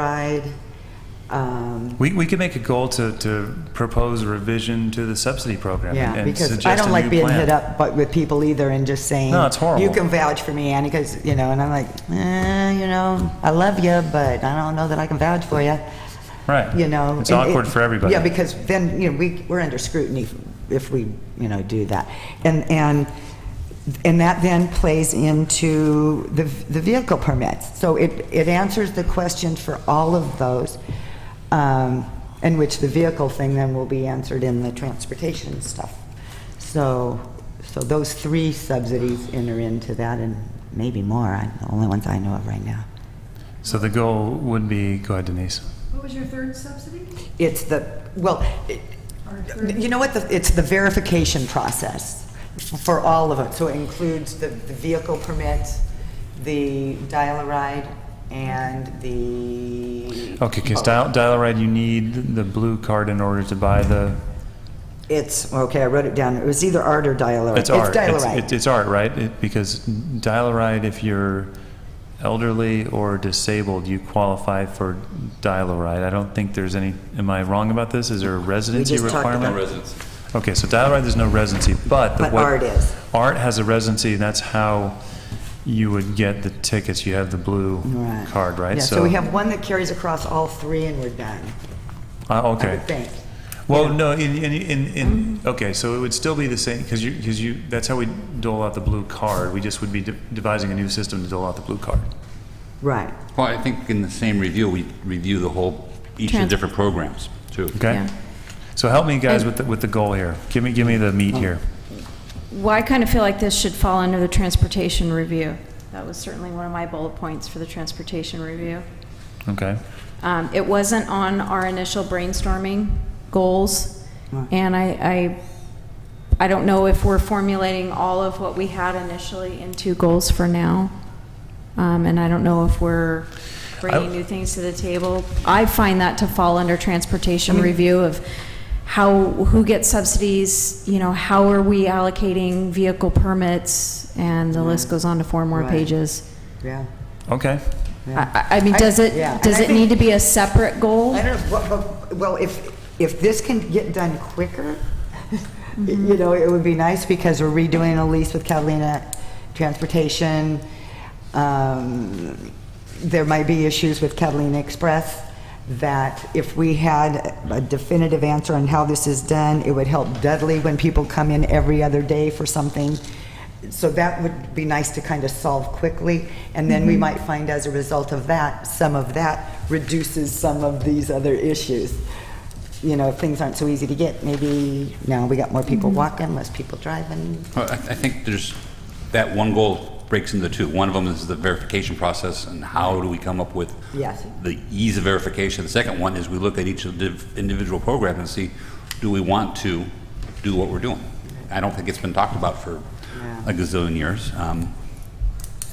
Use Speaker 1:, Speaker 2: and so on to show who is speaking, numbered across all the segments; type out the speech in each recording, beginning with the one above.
Speaker 1: ride. um,
Speaker 2: We, we could make a goal to, to propose a revision to the subsidy program.
Speaker 1: Yeah,
Speaker 2: and
Speaker 1: because I
Speaker 2: suggest
Speaker 1: don't
Speaker 2: a
Speaker 1: like
Speaker 2: new
Speaker 1: being
Speaker 2: plan.
Speaker 1: hit up but with people either and just saying.
Speaker 2: No, it's horrible.
Speaker 1: You can vouch for me, Annie, because, you know, and I'm like, eh, you know, I love you, but I don't know that I can vouch for you.
Speaker 2: Right.
Speaker 1: You know.
Speaker 2: It's
Speaker 1: and it-
Speaker 2: awkward for everybody.
Speaker 1: Yeah, because then, you know, we, we're under scrutiny if we, you know, do that. And, and, and that then plays into the, the vehicle permits. So it, it answers the question for all of those, um, in which the vehicle thing then will be answered in the transportation stuff. So, so those three subsidies enter into that and maybe more, I'm the only ones I know of right now.
Speaker 2: So the goal would be, go ahead Denise.
Speaker 3: What was your third subsidy?
Speaker 1: It's the, well, it- you know what, the- it's the verification process for all of it. So it includes the the vehicle permits, the dial-a-ride, and the...
Speaker 2: Okay, because dial, dial a ride, you need the blue card in order to buy the,
Speaker 1: It's, okay, I wrote it down. It was either art or dial-a-ride.
Speaker 2: it's art.
Speaker 1: dial-a-ride.
Speaker 2: It's, it's art, right? It- Because dial a ride, if you're elderly or disabled, you qualify for dial a ride. I don't think there's any, am I wrong about this? Is there a residency
Speaker 1: just talked about-
Speaker 2: requirement?
Speaker 1: No
Speaker 4: residency.
Speaker 2: Okay, so dial ride, there's no residency, but the
Speaker 1: But
Speaker 2: what-
Speaker 1: art is.
Speaker 2: Art has a residency, and that's how you would get the tickets. You have the blue
Speaker 1: Right.
Speaker 2: card, right?
Speaker 1: Yeah, so we have one that carries across all three and we're done,
Speaker 2: Uh,
Speaker 1: I
Speaker 2: okay.
Speaker 1: would think.
Speaker 2: Well, no, in, in, in, in, okay, so it would still be the same, because you, because you, that's how we dole out the blue card. We just would be de- devising a new system to dole out the blue card.
Speaker 1: Right.
Speaker 4: Well, I think in the same review, we review the whole, each of the
Speaker 5: Trans-
Speaker 4: different programs, too.
Speaker 2: Okay?
Speaker 5: Yeah.
Speaker 2: So help me guys with, the with the goal here. Give me, give me the meat here.
Speaker 5: Well, I kind of feel like this should fall under the transportation review. That was certainly one of my bullet points for the transportation review.
Speaker 2: Okay?
Speaker 5: Um, It wasn't on our initial brainstorming goals,
Speaker 1: Right.
Speaker 5: and I, I, I don't know if we're formulating all of what we had initially into goals for now, Um, and I don't know if we're bringing new things to the table. I find that to fall under transportation review of how, who gets subsidies, you know, how are we allocating vehicle permits, and the list goes on to four more
Speaker 1: Right.
Speaker 5: pages.
Speaker 1: Yeah.
Speaker 2: Okay.
Speaker 5: I, I I mean,
Speaker 1: I-
Speaker 5: does it,
Speaker 1: yeah. And
Speaker 5: does
Speaker 1: I
Speaker 5: it
Speaker 1: think-
Speaker 5: need to be a separate goal?
Speaker 1: I don't know, well- well- well, if, if this can get done quicker, you know, it would be nice because we're redoing a lease with Catalina Transportation. Um, There might be issues with Catalina Express that if we had a definitive answer on how this is done, it would help Dudley when people come in every other day for something. So that would be nice to kind of solve quickly, and then we might find as a result of that, some of that reduces some of these other issues. You know, if things aren't so easy to get, maybe now we got more people walking, less people driving.
Speaker 4: Well, I I think there's, that one goal breaks into two. One of them is the verification process, and how do we come up with
Speaker 1: Yes.
Speaker 4: the ease of verification? The second one is we look at each of the individual program and see, do we want to do what we're doing? I don't think it's been talked about for
Speaker 1: Yeah.
Speaker 4: a gazillion years. Um,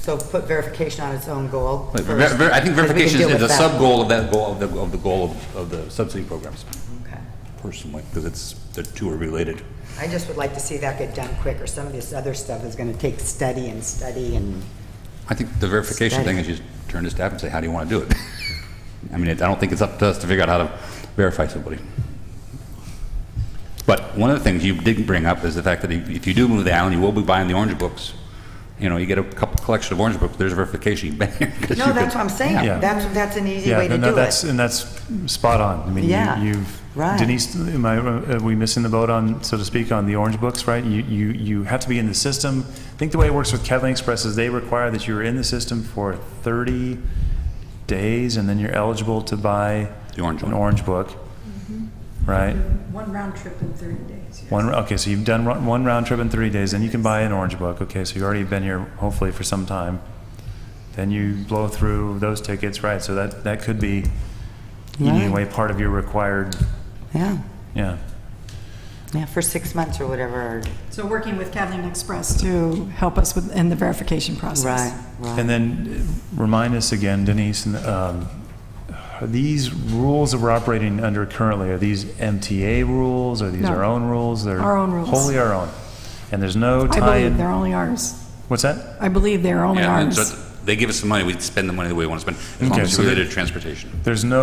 Speaker 1: So put verification on its own goal.
Speaker 4: but ver-
Speaker 1: first,
Speaker 4: ver- I
Speaker 1: because
Speaker 4: think
Speaker 1: we can
Speaker 4: verification
Speaker 1: deal
Speaker 4: is
Speaker 1: with
Speaker 4: a
Speaker 1: that.
Speaker 4: sub-goal of that goal, of the- of the goal of- of the subsidy programs,
Speaker 1: Okay.
Speaker 4: personally, because it's, the two are related.
Speaker 1: I just would like to see that get done quicker. Some of this other stuff is going to take study and study and,
Speaker 4: I think the verification thing is you turn to staff and say, how do you want to do it? I mean, it- I don't think it's up to us to figure out how to verify somebody. But one of the things you didn't bring up is the fact that if if you do move the island, you will be buying the orange books. You know, you get a couple, collection of orange books, there's a verification. you better- 'cause
Speaker 1: no,
Speaker 4: you
Speaker 1: that's what
Speaker 4: could-
Speaker 1: I'm saying.
Speaker 2: Yeah.
Speaker 1: That's, that's an easy
Speaker 2: Yeah,
Speaker 1: way to
Speaker 2: no, no,
Speaker 1: do
Speaker 2: that's,
Speaker 1: it.
Speaker 2: and that's spot on. I mean,
Speaker 1: Yeah,
Speaker 2: you- you've,
Speaker 1: right.
Speaker 2: Denise, am I, are we missing the boat on, so to speak, on the orange books, right? You, you, you have to be in the system. I think the way it works with Catalina Express is they require that you're in the system for 30 days, and then you're eligible to buy
Speaker 4: The orange
Speaker 2: an
Speaker 4: one.
Speaker 2: orange book,
Speaker 1: Mm-hmm.
Speaker 2: right?
Speaker 3: One round trip in 30 days. yes.
Speaker 2: One, okay, so you've done ro- one round trip in three days, then you can buy an orange book. Okay, so you've already been here hopefully for some time. Then you blow through those tickets, right? So that, that could be eating
Speaker 1: Right.
Speaker 2: away part of your required,
Speaker 1: Yeah,
Speaker 2: yeah.
Speaker 1: yeah, for six months or whatever.
Speaker 3: So working with Kathleen Express to help us with, in the verification process.
Speaker 1: Right, right.
Speaker 2: And then uh, remind us again, Denise, and, um, are these rules that we're operating under currently, are these MTA rules? Are these
Speaker 3: No.
Speaker 2: our own rules? They're
Speaker 3: Our own rules.
Speaker 2: Wholly our own. And there's no
Speaker 3: I believe
Speaker 2: tie-in?
Speaker 3: they're only ours.
Speaker 2: What's that?
Speaker 3: I believe they're only
Speaker 4: Yeah,
Speaker 3: ours.
Speaker 4: so They give us the money, we spend the money the way we want to spend, as long
Speaker 2: Okay,
Speaker 4: as it's
Speaker 2: so there-
Speaker 4: related to transportation.
Speaker 2: There's no